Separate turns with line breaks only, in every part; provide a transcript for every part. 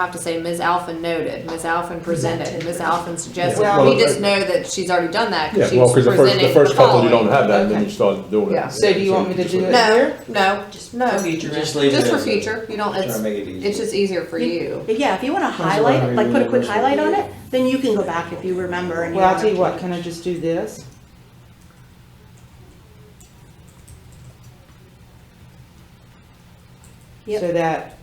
I have to say Ms. Alphen noted, Ms. Alphen presented, Ms. Alphen suggested.
Yeah,
We
well,
just
I-
know that she's already done that
Yeah,
because she
well,
was
because the first,
presenting
the
the
first couple, you don't
following.
have that, and then
Okay.
you start doing
Yeah.
it.
So do you want me to
just
do
like-
it?
No, no, no,
Future
Just leave it.
just for
as-
future, you don't,
Try to
it's,
make it easy.
it's just easier for you.
But yeah, if you want to highlight, like put a quick highlight on it, then you can go back if you remember and you
Well, I'll
want
tell you what,
to.
can I just do this?
Yep.
So that.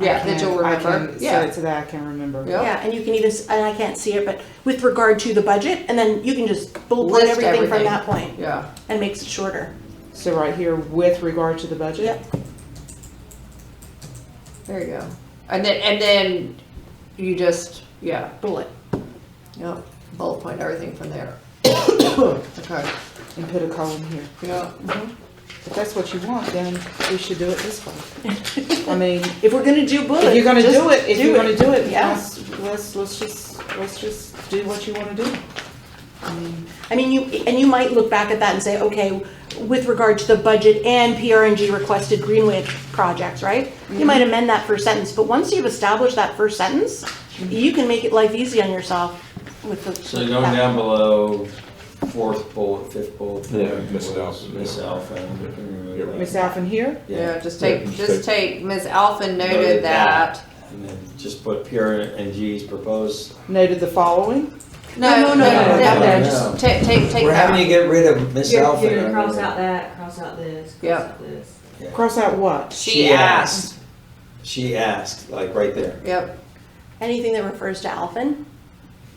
I
Yeah, that
can-
you'll
I
remember.
can-
Yeah.
So so that I can remember.
Yeah.
Yeah, and you can even, s- and I can't see it, but with regard to the budget, and then you can just bullet point
List
everything
everything.
from that point
Yeah,
and makes it shorter.
So right here, with regard to the budget?
Yep.
there you go. And then, and then you just, yeah,
Bullet.
yeah, bullet point everything from there. Okay,
And put a column here.
yeah.
If that's what you want, then we should do it this way. I mean, if
If we're gonna do bullet,
you're gonna
just
do it, if you're gonna do it,
Yeah.
let's, let's, let's just, let's just do what you wanna do.
I mean, you, and you might look back at that and say, okay, with regard to the budget and PRNG requested Greenway projects, right?
Mm-hmm.
You might amend that first sentence, but once you've established that first sentence,
Mm-hmm.
you can make it life easy on yourself with the.
So going down below, fourth bullet, fifth bullet.
Yeah,
point,
miss Alpha, yeah.
Miss Alpha. we can remove
Yeah.
that.
Miss Alphen here,
Yeah, just
Yeah,
take,
just
just take, Ms. Alphen noted that.
And then just put pure and G's proposed.
noted the following.
No, no, no,
no,
no,
no,
no,
no.
just take, take, take
We're having
that.
to get rid of Miss
You're,
Alpha.
you're gonna cross out that, cross out this, cross
Yep.
out this.
Cross out what?
She asked,
She asked, like right there.
yep,
Anything that refers to Alphen,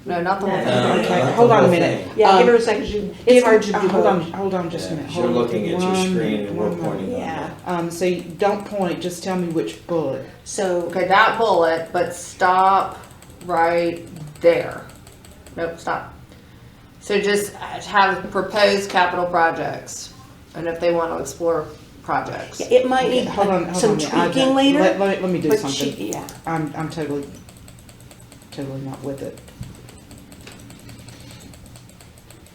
no, not the
No.
one.
No,
Okay,
not uh, the
hold on a
whole
minute.
thing.
yeah,
Um,
give her a second, she,
Give
it's
her-
hard to do.
uh, Hold on, hold on just a minute.
Yeah,
Hold
You're
on
looking at your
one
screen
minute,
and we're
one
pointing
minute.
on
Yeah.
that.
Um, so you don't point, just tell me which bullet.
So,
Okay, that bullet, but stop right there. Nope, stop. So just have proposed capital projects, and if they want to explore projects.
it might
Okay,
need
Hold on,
uh,
hold
some
on a minute. I
tweaking
don't- Let, let
later,
me, let me do
but she,
something.
yeah,
I'm, I'm totally, totally not with it.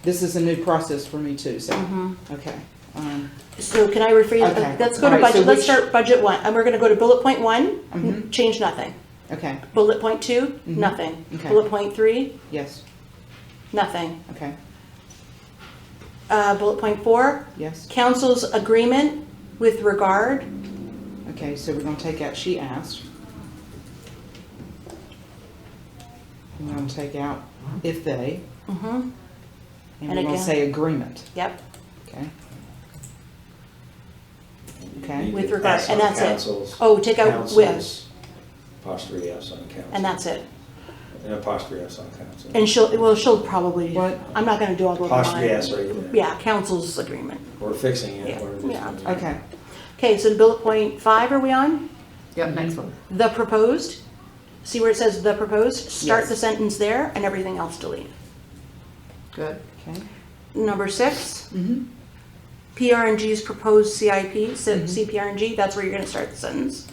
This is a new process for me too, so,
Mm-hmm.
okay. Um,
so can I rephrase,
Mm-hmm. Okay.
let's go to
All right, so
budget, let's
which-
start budget one, and we're gonna go to bullet point one,
Mhm.
change nothing.
okay,
Bullet point two,
Mhm.
nothing.
Okay.
Bullet point three,
yes,
nothing.
okay,
Uh, bullet point four,
yes.
council's agreement with regard,
Okay, so we're gonna take out, she asked. We're gonna take out if they, Mm-hmm.
mhm,
and
And
we're gonna
again.
say agreement,
yep,
okay? Okay,
With
You could
regard-
S
and
on
that's it.
councils,
Oh, take out with.
councils, Apostrophe S on council.
and that's it.
An apostrophe S on council.
And she'll, well, she'll probably,
What?
I'm not gonna do all the.
Apostrophe S right there.
Yeah, council's agreement.
We're fixing it.
Yeah,
We're just
yeah.
Mm-hmm.
gonna-
okay,
Okay, so bullet point five, are we on?
Yep, next
Mm-hmm.
one.
The proposed? See where it says the proposed? Start
Yes.
the sentence there and everything else delete.
Good.
okay.
Number six,
Mm-hmm.
PRNG's proposed CIP, so CPRNG, that's where you're gonna start the sentence.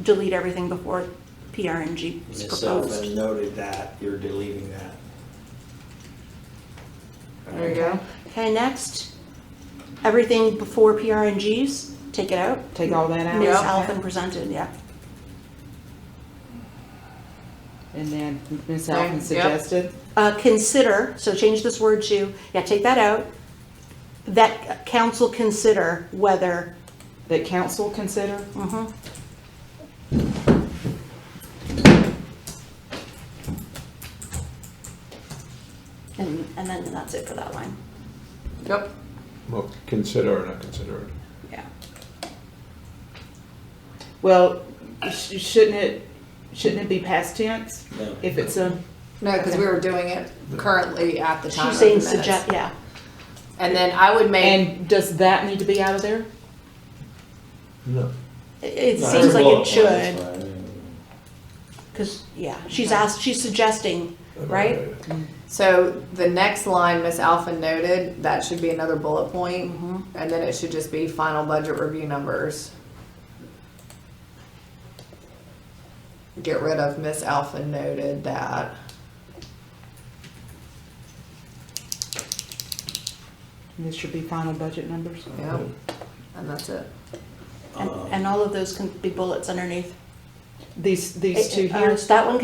Delete everything before PRNG's
Ms.
proposed.
Sullivan noted that, you're deleting that.
There you go.
Okay, next, everything before PRNGs, take it out.
Take all that out?
Ms. Alphen presented, yeah.
And then Ms.
Okay,
Alvin
yep.
suggested,
Uh, consider, so change this word to, yeah, take that out. That council consider whether,
that council consider,
mhm. And, and then that's it for that line,
Yep.
Well, consider or not consider it.
yeah.
well, sh- shouldn't it, shouldn't it be past tense?
No.
If it's a,
No, because we were doing it currently at the time.
She's
of the
saying
minutes.
suggest, yeah,
And then I would make,
and does that need to be out of there?
No.
it, it
No,
seems
it's a
like
bullet
it
point,
should,
that's fine.
cause, yeah, she's asked, she's suggesting, right?
so the next line, Ms. Alphen noted, that should be another bullet point, And then it should just be final budget review numbers. Get rid of Miss Alpha noted that.
This should be final budget numbers?
Yep. And that's it.
And,
Um,
and all of those can be bullets underneath,
These, these two
Uh,
here?
That one